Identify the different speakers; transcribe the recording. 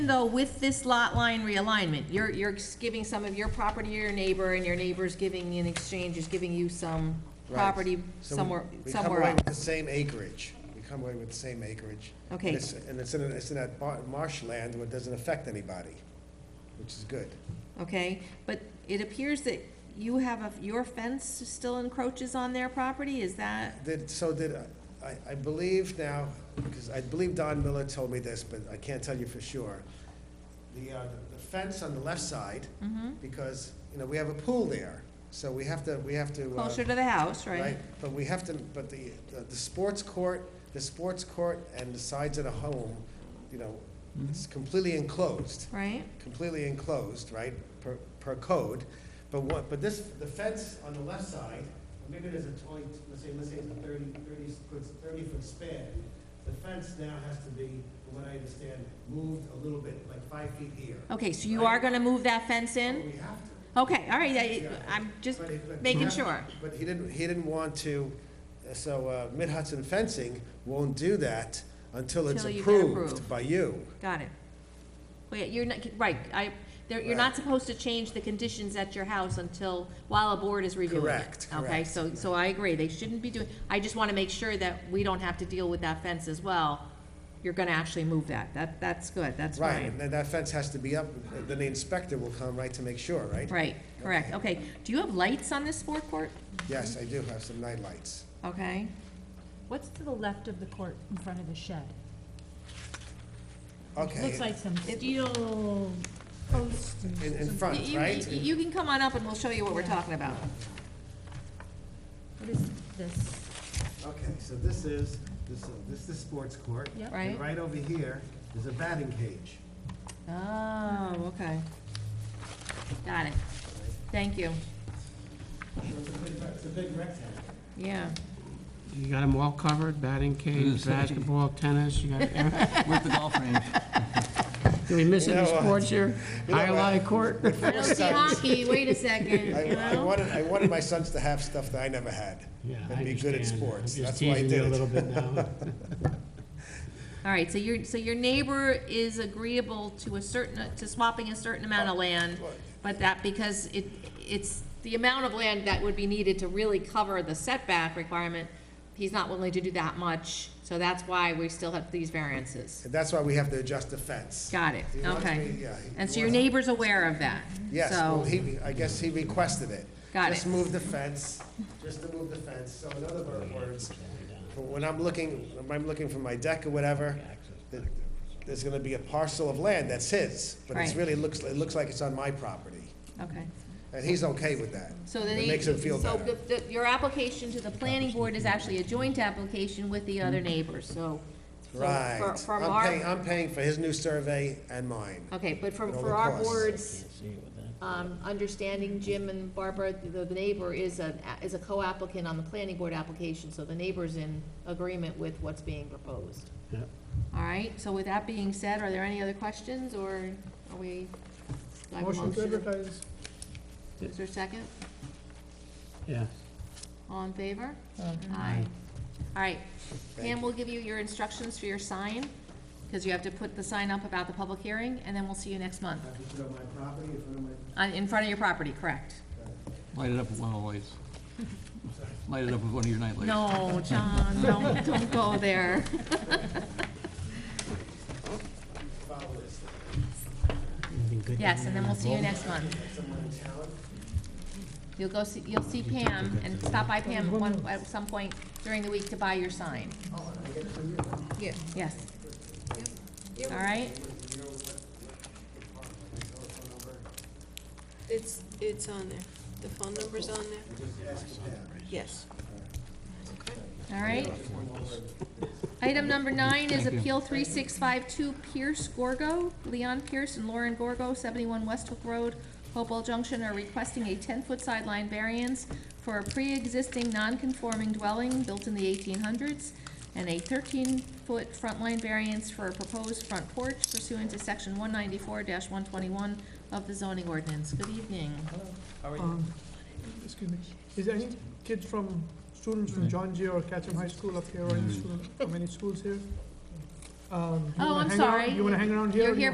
Speaker 1: Though with this lot line realignment, you're, you're giving some of your property to your neighbor, and your neighbor's giving, in exchange, is giving you some
Speaker 2: Right.
Speaker 1: property
Speaker 2: So we-
Speaker 1: somewhere,
Speaker 2: We come
Speaker 1: somewhere
Speaker 2: away
Speaker 1: else.
Speaker 2: with the same acreage. We come away with the same acreage.
Speaker 1: Okay.
Speaker 2: And it's- And it's in, it's in that bar- marshland where it doesn't affect anybody, which is good.
Speaker 1: Okay, but it appears that you have a, your fence still encroaches on their property, is that?
Speaker 2: Did, so did, I, I believe now, because I believe Don Miller told me this, but I can't tell you for sure. The, uh, the fence on the left side,
Speaker 1: Mm-hmm.
Speaker 2: because, you know, we have a pool there, so we have to, we have to. uh,
Speaker 1: Closer to the house,
Speaker 2: right?
Speaker 1: right?
Speaker 2: But we have to, but the, the- the sports court, the sports court and the sides of the home, you know, it's completely enclosed,
Speaker 1: Right?
Speaker 2: completely enclosed, right, per, per code. But what, but this, the fence on the left side, or maybe there's a twenty, let's say, let's say it's a thirty, thirty, foot- thirty foot span. The fence now has to be, from what I understand, moved a little bit, like five feet here.
Speaker 1: Okay, so you are gonna move that fence
Speaker 2: But
Speaker 1: Oh, in?
Speaker 2: We have to.
Speaker 1: Okay, all right, I, I'm just
Speaker 2: But it- but-
Speaker 1: making sure.
Speaker 2: But he didn't, he didn't want to, so uh, Mid Hudson Fencing won't do that until it's
Speaker 1: Till you get
Speaker 2: approved
Speaker 1: approved.
Speaker 2: by you.
Speaker 1: Got it. Wait, you're not, right, I, there, you're not
Speaker 2: Right.
Speaker 1: supposed to change the conditions at your house until, while a board is reviewing it.
Speaker 2: Correct,
Speaker 1: Okay,
Speaker 2: correct.
Speaker 1: so, so I agree, they shouldn't be doing, I just wanna make sure that we don't have to deal with that fence as well. You're gonna actually move that, that, that's good, that's fine.
Speaker 2: Right, and then that fence has to be up, then the inspector will come, right, to make sure, right?
Speaker 1: Right, correct, okay. Do you have lights on this sport court?
Speaker 2: Yes, I do have some night lights.
Speaker 1: Okay,
Speaker 3: What's to the left of the court in front of the shed?
Speaker 2: Okay,
Speaker 3: Looks
Speaker 2: Eh,
Speaker 3: like some steel posts and
Speaker 2: in, in
Speaker 3: some-
Speaker 2: front,
Speaker 1: You- you-
Speaker 2: right?
Speaker 1: You you can come on up and we'll show you what we're talking about.
Speaker 3: What is this?
Speaker 2: Okay, so this is, this, this is the sports court.
Speaker 3: Yep.
Speaker 1: Right.
Speaker 2: And right over here is a batting cage.
Speaker 1: Oh, okay. Got it. Thank you.
Speaker 2: It's a big rectangle.
Speaker 1: Yeah,
Speaker 4: You got them all covered, batting cage, basketball, tennis, you got, every-
Speaker 5: With the golf range.
Speaker 4: do we miss
Speaker 2: You
Speaker 4: any
Speaker 2: know, uh,
Speaker 4: sports here?
Speaker 2: you know, uh,
Speaker 4: High court?
Speaker 1: I don't see hockey, wait a second,
Speaker 2: I,
Speaker 1: you
Speaker 2: I
Speaker 1: know?
Speaker 2: wanted, I wanted my sons to have stuff that I never had.
Speaker 4: Yeah, I
Speaker 2: And be good at
Speaker 4: understand.
Speaker 2: sports,
Speaker 4: I'm
Speaker 2: that's why I did it.
Speaker 4: just teasing you a little bit now.
Speaker 1: All right, so your, so your neighbor is agreeable to a certain, to swapping a certain amount of land, but that, because it, it's the amount of land that would be needed to really cover the setback requirement, he's not willing to do that much, so that's why we still have these variances.
Speaker 2: And that's why we have to adjust the fence.
Speaker 1: Got it,
Speaker 2: He wants
Speaker 1: okay.
Speaker 2: me- yeah, he
Speaker 1: And so your
Speaker 2: wants-
Speaker 1: neighbor's aware of that?
Speaker 2: Yes, well,
Speaker 1: So,
Speaker 2: he, I guess he requested it.
Speaker 1: Got
Speaker 2: Just
Speaker 1: it.
Speaker 2: move the fence, just to move the fence, so in other words, for when I'm looking, when I'm looking for my deck or whatever, th- there's gonna be a parcel of land that's his, but it's
Speaker 1: Right.
Speaker 2: really looks, it looks like it's on my property,
Speaker 1: okay.
Speaker 2: and he's okay with that.
Speaker 1: So then
Speaker 2: It
Speaker 1: he-
Speaker 2: makes him feel
Speaker 1: so
Speaker 2: better.
Speaker 1: the- the- your application to the planning board is actually a joint application with the other neighbors, so. so for-
Speaker 2: Right.
Speaker 1: From
Speaker 2: I'm
Speaker 1: our.
Speaker 2: paying, I'm paying for his new survey and mine.
Speaker 1: Okay, but from,
Speaker 2: And all
Speaker 1: for
Speaker 2: the
Speaker 1: our
Speaker 2: costs.
Speaker 1: board's, um, understanding, Jim and Barbara, the, the neighbor is a, is a co-applicant on the planning board application, so the neighbor's in agreement with what's being proposed.
Speaker 4: Yeah.
Speaker 1: All right, so with that being said, are there any other questions, or are we? do I have a
Speaker 6: Motion to advertise.
Speaker 1: Is there a second?
Speaker 4: Yeah,
Speaker 1: All in favor?
Speaker 6: Aye.
Speaker 1: Aye. All right,
Speaker 2: Thank
Speaker 1: Pam
Speaker 2: you.
Speaker 1: will give you your instructions for your sign, because you have to put the sign up about the public hearing, and then we'll see you next month.
Speaker 2: Have to put up my property in front of my
Speaker 1: Uh, in front of your property, correct?
Speaker 5: Light it up with one of the lights. Light it up with one of your night lights.
Speaker 1: No, John, don't, don't go there.
Speaker 4: anything good?
Speaker 1: Yes, and then we'll see you next month. You'll go see, you'll see Pam, and stop by Pam at one, at some point during the week to buy your sign. Yeah. Yes. All right?
Speaker 7: It's, it's on there. The phone number's on there? Yes.
Speaker 1: All right. Item number nine is Appeal three six five two Pierce Gorgo. Leon Pierce and Lauren Gorgo, seventy-one Westbrook Road, Hopewell Junction, are requesting a ten-foot sideline variance for a pre-existing non-conforming dwelling built in the eighteen hundreds, and a thirteen-foot front line variance for a proposed front porch pursuant to section one ninety-four one twenty-one of the zoning ordinance. Good evening.
Speaker 6: Um, Excuse me, is there any kids from, students from John Jay or Catherine High School up here, or any student from any schools here? Um, you
Speaker 1: Oh,
Speaker 6: wanna
Speaker 1: I'm
Speaker 6: hang around-
Speaker 1: sorry.
Speaker 6: You wanna hang around here?
Speaker 1: You're
Speaker 6: or do you-
Speaker 1: here